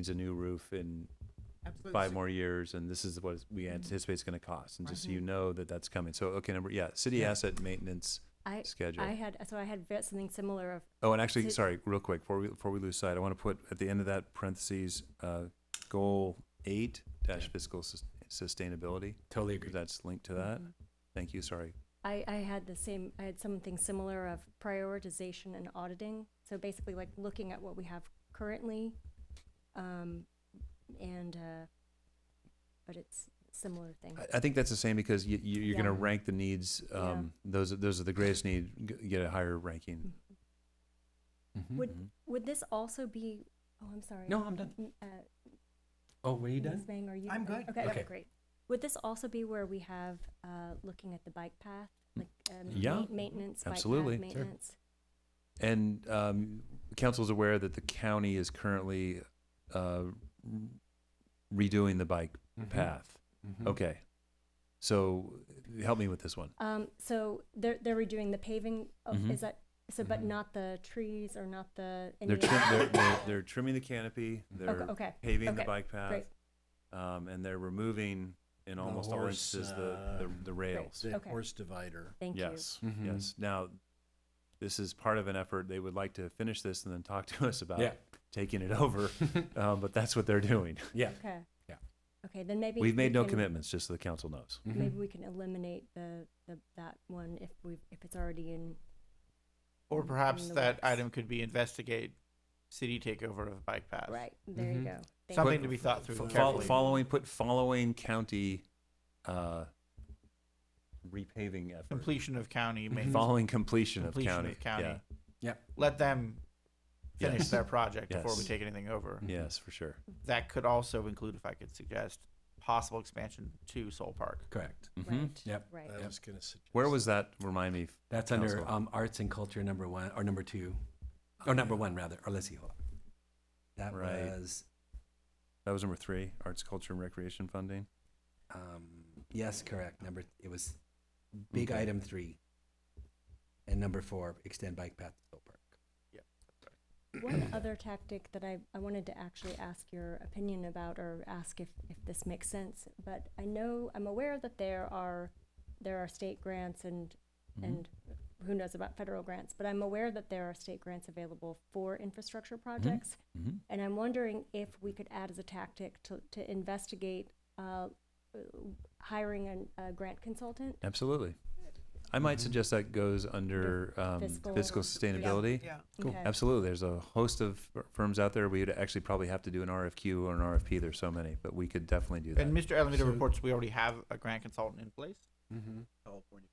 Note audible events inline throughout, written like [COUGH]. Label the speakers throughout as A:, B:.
A: needs a new roof in
B: Absolutely.
A: five more years, and this is what we
C: Mm-hmm.
A: anticipate it's going to cost, and just so you know that that's coming. So, okay, number, yeah, city asset maintenance
C: I,
A: schedule.
C: I had, so I had ve- something similar of,
A: Oh, and actually,
C: So-
A: sorry, real quick, before we, before we lose sight, I want to put at the end of that parentheses, uh, goal eight dash fiscal sus- sustainability.
D: Totally agree.
A: That's linked to that.
C: Mm-hmm.
A: Thank you, sorry.
C: I, I had the same, I had something similar of prioritization and auditing. So basically like looking at what we have currently, um, and, uh, but it's similar thing.
A: I, I think that's the same because you, you, you're gonna
C: Yeah.
A: rank the needs,
C: Yeah.
A: um, those, are- those are the greatest need, g- get a higher ranking. Mm-hmm.
C: Mhm. Mm-hmm. Would- Would this also be, oh, I'm sorry.
D: No, I'm done.
C: M- Uh,
D: Oh, were you
C: Ms.
D: done?
C: Bang, are you?
B: I'm
C: are-
B: good.
C: Okay,
D: Okay.
C: great. Would this also be where we have, uh, looking at the bike path, like, um,
A: Mm. Yeah,
C: ma- maintenance, bike path
A: absolutely. Sure.
C: maintenance?
A: And um, council's aware that the county is currently uh, redoing the bike
C: Mm-hmm.
A: path.
D: Mhm.
A: Okay. So help me with this one.
C: Um, so they're, they're redoing the paving, of-
A: Mhm.
C: is that, so, but
D: Mhm.
C: not the trees or not the? any
A: They're,
C: of the- [LAUGHS]
A: trim, they're, they're, they're trimming the canopy,
C: Okay,
A: they're
C: okay,
A: paving the
C: okay,
A: bike path,
C: great.
A: um, and they're removing, in
E: The
A: almost all
E: horse,
A: instances, the, the,
E: uh, Mm-hmm.
A: the rails.
E: The
C: Okay.
E: horse divider.
C: thank you.
A: Yes,
D: Mhm.
A: yes. Now, this is part of an effort. They would like to finish this and then talk to us about
D: [LAUGHS] Yeah.
A: taking it over, um, but that's what they're doing.
D: Yeah.
C: Okay.
D: Yeah.
C: Okay, then maybe.
A: We've
C: we
A: made no Mm-hmm.
C: can-
A: commitments, just so the council knows.
D: Mhm.
C: Maybe we can eliminate the, the, that one if we, if it's already in.
F: Or
C: in
F: perhaps
C: the
F: that
C: works.
F: item could be investigate city takeover of bike path.
C: Right, there
A: Mm-hmm.
C: you
D: Mhm.
C: go. Thank
F: Something
C: you.
F: to be thought through
A: Fo- fol-
F: carefully.
A: following, put following county uh, repaving effort.
F: Completion of county
D: Mhm.
F: maintenance.
A: Following completion,
F: Completion
A: of
F: of
A: county.
F: county.
A: Yeah.
F: Let them finish
A: Yes.
F: their project before we
A: Yes.
F: take anything over.
D: Mhm.
A: Yes, for sure.
F: That could also include, if I could suggest, possible expansion to Soul Park.
D: Correct.
A: Mhm.
C: Right.
D: Yep.
C: Right.
E: I
D: Yep.
E: was gonna suggest.
A: Where was that? Remind me.
D: That's
A: Council.
D: under um, arts and culture number one or number two, or number one rather, or let's see. hold on. That
A: Right.
D: was
A: That was number three. Arts, culture, and recreation funding.
D: um, yes, correct. Number it was big
A: Okay.
D: item three, and number four extend bike path to Soul Park.
C: One other tactic that I, I wanted to actually ask your opinion about or ask if, if this makes sense, but I know, I'm aware that there are, there are state grants and,
A: Mhm.
C: and who knows about federal grants, but I'm aware that there are state grants available for infrastructure projects.
F: Mm-hmm.
A: Mhm.
C: And I'm wondering if we could add as a tactic to, to investigate, uh, hiring an, a grant consultant.
A: Absolutely. I might
F: Mm-hmm.
D: Mhm.
A: suggest that goes under um, fiscal,
C: Fiscal-
A: sustainability.
B: Yeah.
D: Cool.
C: Okay.
A: Absolutely. There's a host of fir- firms out there. We'd actually probably have to do an RFQ or an RFP. There's so many, but we could definitely do that.
F: And Mr. Alameda
D: So-
F: reports we already have a grant consultant in place.
D: Mm-hmm.
E: California.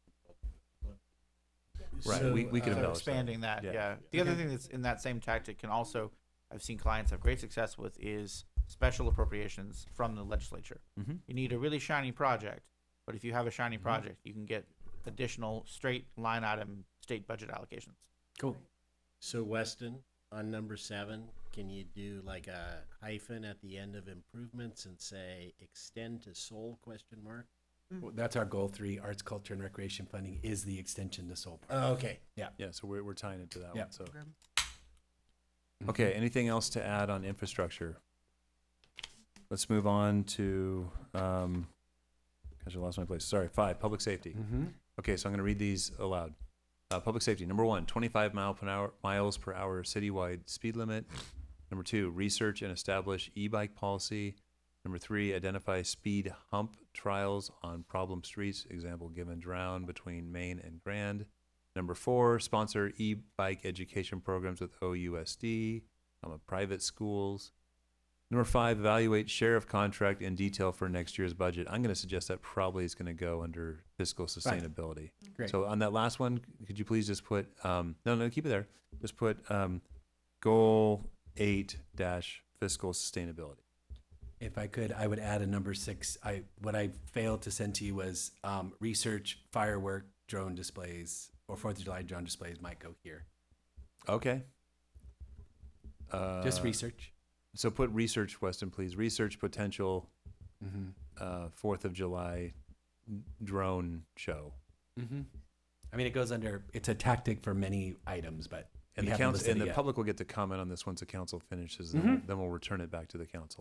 A: Right, we- we can
E: uh,
F: So
A: embellish that.
F: expanding that,
A: Yeah.
F: yeah. The other
D: Okay.
F: thing that's in that same tactic can also, I've seen clients have great success with, is special appropriations from the legislature.
A: hmm
F: You need a really shiny project, but if you have a shiny
A: Mhm.
F: project, you can get additional straight line item state budget allocations.
D: Cool.
E: So Weston, on number seven, can you do like a hyphen at the end of improvements and say extend to Seoul question mark?
D: Well, that's our goal three: arts, culture, and recreation funding is the extension to Soul Park.
E: Oh, okay.
A: Yeah. So we're, we're tying it to that
D: Yeah.
A: one. So Mm-hmm. okay. Anything else to add on infrastructure? Let's move on to. Um, gosh, I lost my place. Sorry. Five. Public safety.
D: Mm-hmm.
A: Okay, so I'm going to read these aloud. Uh, public safety. Number one, 25 mile per hour, miles per hour citywide speed limit. Number two, research and establish e-bike policy. Number three, identify speed hump trials on problem streets. Example given: Drown between Maine and Grand. Number four, sponsor e-bike education programs with OUSD, um, private schools. Number five, evaluate sheriff contract in detail for next year's budget. I'm going to suggest that probably is going to go under fiscal sustainability.
D: Great.
A: So on that last one, could you please just put, um, no, no, keep it there. Just put, um, goal eight dash fiscal sustainability.
D: If I could, I would add a number six. I what I failed to send to you was um, research firework drone displays or Fourth of July drone displays might go here.
A: Okay. Uh,
D: Just research.
A: So put research, Weston, please. Research potential,
D: Mm-hmm.
A: uh, Fourth of July drone show.
D: Mm-hmm. I mean, it goes under. It's a tactic for many items, but
A: And
D: We
A: the
D: haven't
A: council,
D: listed
A: and
D: it
A: the
D: yet. Mm-hmm.
A: public will get to comment on this once the council finishes, and then we'll return it back to the council.